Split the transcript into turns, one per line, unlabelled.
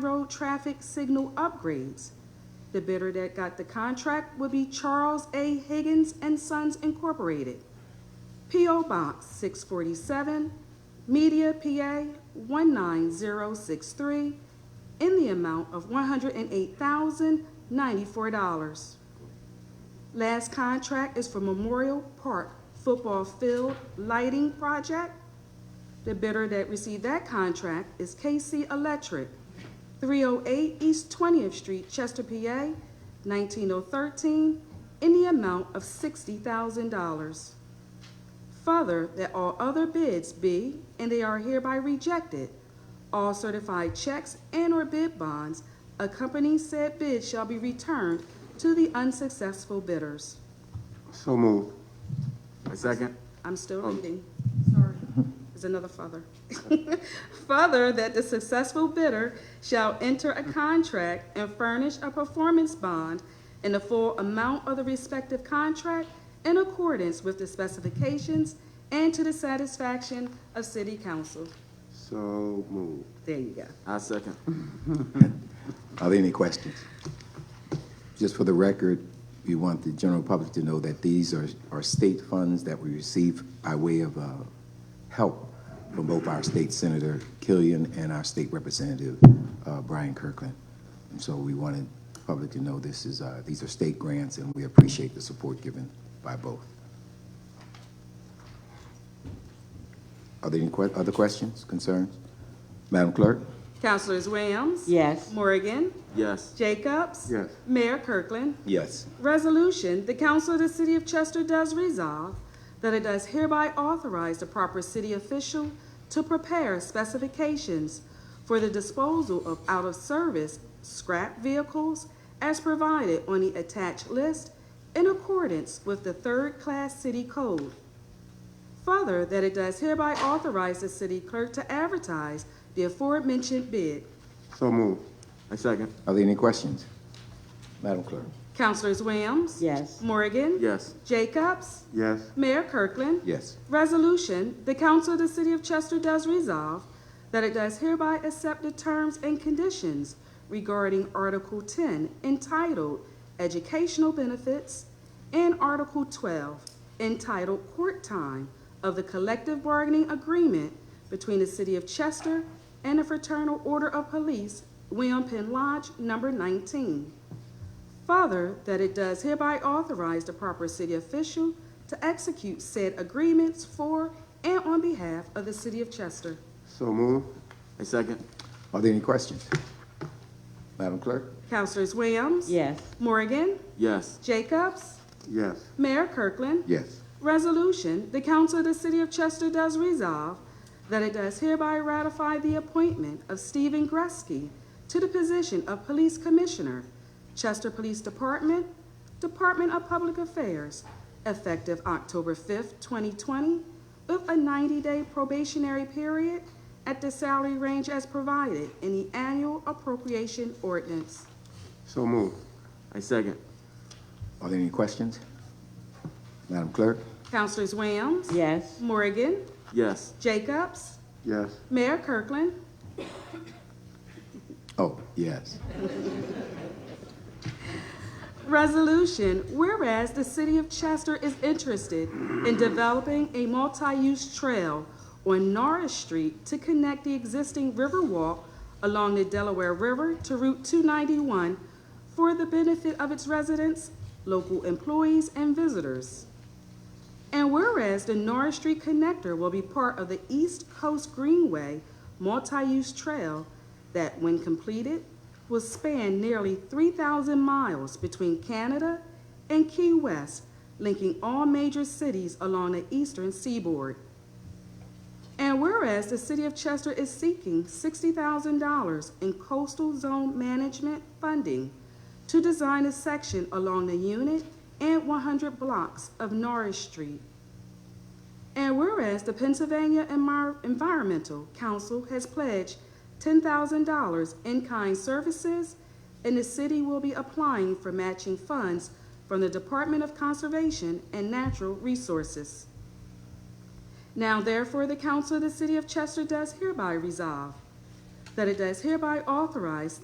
road traffic signal upgrades. The bidder that got the contract would be Charles A. Higgins and Sons Incorporated. P.O. Box 647, Media, PA 19063, in the amount of $108,094. Last contract is for Memorial Park Football Field Lighting Project. The bidder that received that contract is KC Electric, 308 East 20th Street, Chester, PA 19013, in the amount of $60,000. Further, that all other bids be, and they are hereby rejected. All certified checks and/or bid bonds accompanying said bid shall be returned to the unsuccessful bidders.
So moved. Second?
I'm still reading. Sorry. There's another further. Further, that the successful bidder shall enter a contract and furnish a performance bond in the full amount of the respective contract in accordance with the specifications and to the satisfaction of city council.
So moved.
There you go.
I second.
Are there any questions? Just for the record, we want the general public to know that these are, are state funds that we receive by way of, uh, help from both our state senator Killian and our state representative, uh, Brian Kirkland. And so we wanted the public to know this is, uh, these are state grants and we appreciate the support given by both. Are there any que- other questions, concerns? Madam Clerk?
Councilors Williams?
Yes.
Morgan?
Yes.
Jacobs?
Yes.
Mayor Kirkland?
Yes.
Resolution, the Council of the City of Chester does resolve that it does hereby authorize the proper city official to prepare specifications for the disposal of out-of-service scrap vehicles as provided on the attached list in accordance with the third-class city code. Further, that it does hereby authorize the city clerk to advertise the aforementioned bid.
So moved. I second.
Are there any questions? Madam Clerk?
Councilors Williams?
Yes.
Morgan?
Yes.
Jacobs?
Yes.
Mayor Kirkland?
Yes.
Resolution, the Council of the City of Chester does resolve that it does hereby accept the terms and conditions regarding Article 10 entitled Educational Benefits and Article 12 entitled Court Time of the Collective Bargaining Agreement between the City of Chester and the Fraternal Order of Police, William Penn Lodge, Number 19. Further, that it does hereby authorize the proper city official to execute said agreements for and on behalf of the city of Chester.
So moved. I second.
Are there any questions? Madam Clerk?
Councilors Williams?
Yes.
Morgan?
Yes.
Jacobs?
Yes.
Mayor Kirkland?
Yes.
Resolution, the Council of the City of Chester does resolve that it does hereby ratify the appointment of Stephen Gresky to the position of Police Commissioner, Chester Police Department, Department of Public Affairs, effective October 5th, 2020, with a 90-day probationary period at the salary range as provided in the annual appropriation ordinance.
So moved. I second.
Are there any questions? Madam Clerk?
Councilors Williams?
Yes.
Morgan?
Yes.
Jacobs?
Yes.
Mayor Kirkland?
Oh, yes.
Resolution, whereas the city of Chester is interested in developing a multi-use trail on Norris Street to connect the existing Riverwalk along the Delaware River to Route 291 for the benefit of its residents, local employees, and visitors. And whereas the Norris Street Connector will be part of the East Coast Greenway multi-use trail that, when completed, will span nearly 3,000 miles between Canada and Key West, linking all major cities along the eastern seaboard. And whereas the city of Chester is seeking $60,000 in coastal zone management funding to design a section along the unit and 100 blocks of Norris Street. And whereas the Pennsylvania Envi- Environmental Council has pledged $10,000 in kind services, and the city will be applying for matching funds from the Department of Conservation and Natural Resources. Now therefore, the council of the city of Chester does hereby resolve that it does hereby authorize